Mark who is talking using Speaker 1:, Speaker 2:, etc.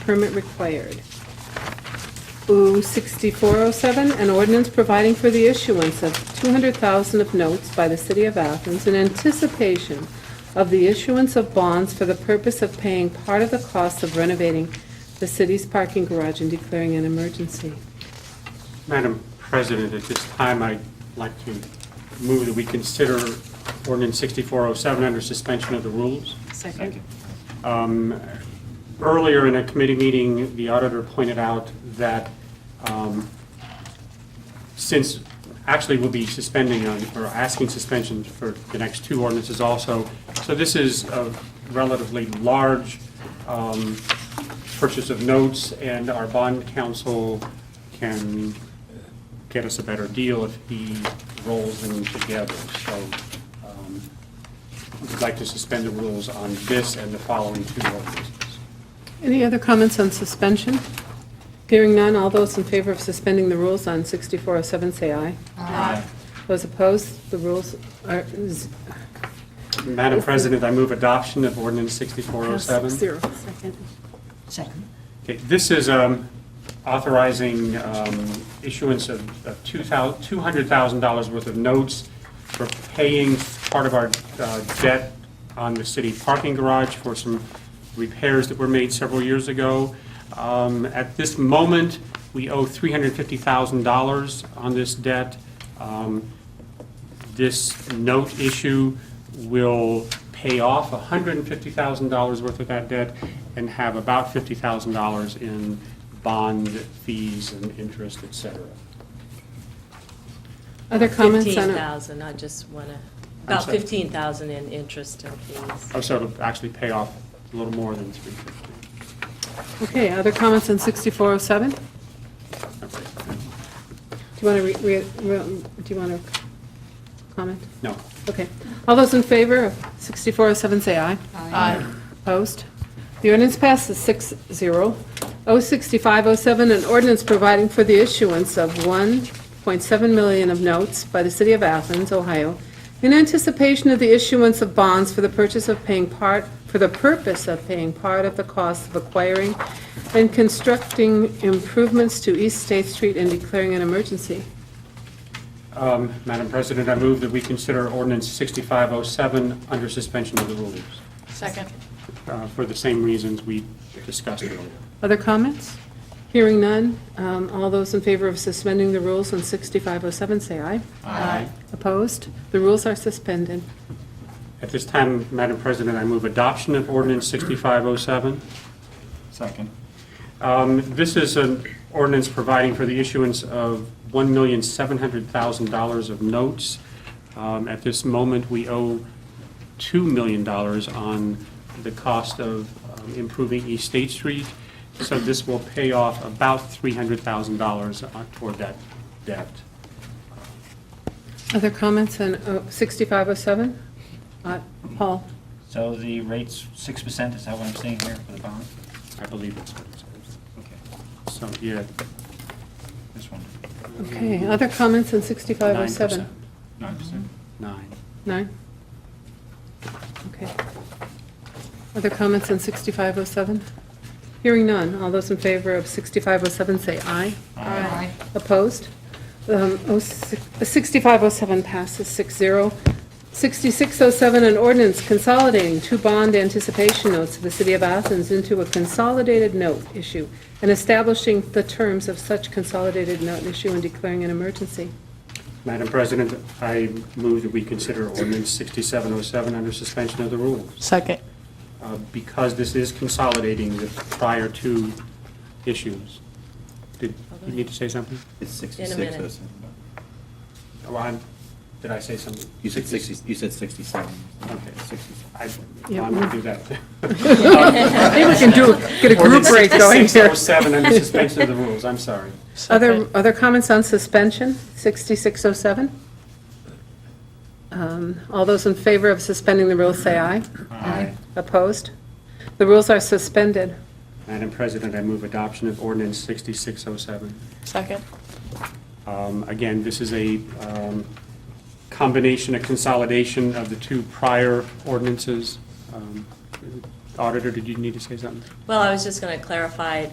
Speaker 1: permit required. Ooh, 6407, an ordinance providing for the issuance of 200,000 of notes by the City of Athens in anticipation of the issuance of bonds for the purpose of paying part of the cost of renovating the city's parking garage and declaring an emergency.
Speaker 2: Madam President, at this time, I'd like to move that we consider ordinance 6407 under suspension of the rules.
Speaker 1: Second.
Speaker 2: Um, Earlier in a committee meeting, the auditor pointed out that um, since, actually, we'll be suspending on, or asking suspensions for the next two ordinances also, so this is a relatively large um, purchase of notes, and our bond counsel can get us a better deal if he rolls them together. So um, we'd like to suspend the rules on this and the following two ordinances.
Speaker 1: Any other comments on suspension? Hearing none, all those in favor of suspending the rules on 6407, say aye. Aye. Those opposed, the rules are z-
Speaker 2: Madam President, I move adoption of ordinance 6407.
Speaker 1: zero. Second.
Speaker 3: Second.
Speaker 2: Okay, This is um, authorizing um, issuance of of two thou- $200,000 worth of notes for paying part of our uh, debt on the city parking garage for some repairs that were made several years ago. Um, At this moment, we owe $350,000 on this debt. Um, this note issue will pay off $150,000 worth of that debt and have about $50,000 in bond fees and interest, et cetera.
Speaker 1: Other comments on
Speaker 4: Fifteen
Speaker 1: it?
Speaker 4: thousand, I just want to, about
Speaker 2: sorry.
Speaker 4: fifteen thousand in interest and fees.
Speaker 2: Oh, So it'll actually pay off a little more than 350.
Speaker 1: Okay, other comments on 6407? Do you want to, re? re- do you want to comment?
Speaker 2: No.
Speaker 1: Okay. All those in favor of 6407, say aye. Aye. Opposed? The ordinance passes 6-0. 06507, an ordinance providing for the issuance of 1.7 million of notes by the City of Athens, Ohio, in anticipation of the issuance of bonds for the purchase of paying part, for the purpose of paying part of the cost of acquiring and constructing improvements to East State Street and declaring an emergency.
Speaker 2: Um, Madam President, I move that we consider ordinance 6507 under suspension of the rules
Speaker 3: Second.
Speaker 2: uh, for the same reasons we discussed earlier.
Speaker 1: Other comments? Hearing none. Um, All those in favor of suspending the rules on 6507, say aye.
Speaker 3: Aye.
Speaker 1: Opposed? The rules are suspended.
Speaker 2: At this time, Madam President, I move adoption of ordinance 6507.
Speaker 3: Second.
Speaker 2: Um, This is an ordinance providing for the issuance of $1,700,000 of notes. Um, At this moment, we owe $2 million on the cost of um, improving East State Street, so this will pay off about $300,000 on- toward that debt.
Speaker 1: Other comments on uh, 6507? Uh, Paul?
Speaker 5: So the rate's six percent, is that what I'm seeing here for the bond?
Speaker 2: I believe that's what it
Speaker 5: Okay,
Speaker 2: says. So, yeah.
Speaker 5: this one,
Speaker 1: Okay, other comments on
Speaker 2: 9%.
Speaker 1: 6507?
Speaker 5: Mm-hmm. nine percent?
Speaker 2: Nine.
Speaker 1: Nine? Okay. Other comments on 6507? Hearing none. All those in favor of 6507, say aye.
Speaker 3: Aye.
Speaker 1: Opposed? Um, oh, six- 6507 passes 6-0. 6607, an ordinance consolidating two bond anticipation notes of the City of Athens into a consolidated note issue and establishing the terms of such consolidated note issue and declaring an emergency.
Speaker 2: Madam President, I move that we consider ordinance 6707 under suspension of the rules.
Speaker 6: Second.
Speaker 2: uh, because this is consolidating the prior two issues. Did you need to say something?
Speaker 7: It's
Speaker 4: In a
Speaker 7: 66,
Speaker 4: minute.
Speaker 7: or something.
Speaker 2: Oh, I'm- Did I say something?
Speaker 7: You said 60, you said 67.
Speaker 2: Okay.
Speaker 7: 67.
Speaker 2: I-
Speaker 1: Yeah.
Speaker 2: I'm going to do that.
Speaker 1: Maybe we can do, get a group
Speaker 2: Ordinance
Speaker 1: rate going here.
Speaker 2: 6607 under suspension of the rules, I'm sorry.
Speaker 1: Other, other comments on suspension, 6607? Um, All those in favor of suspending the rules, say aye.
Speaker 3: Aye.
Speaker 1: Opposed? The rules are suspended.
Speaker 2: Madam President, I move adoption of ordinance 6607.
Speaker 6: Second.
Speaker 2: Um, Again, this is a um, combination, a consolidation of the two prior ordinances. Um, auditor, did you need to say something?
Speaker 4: Well, I was just going to clarify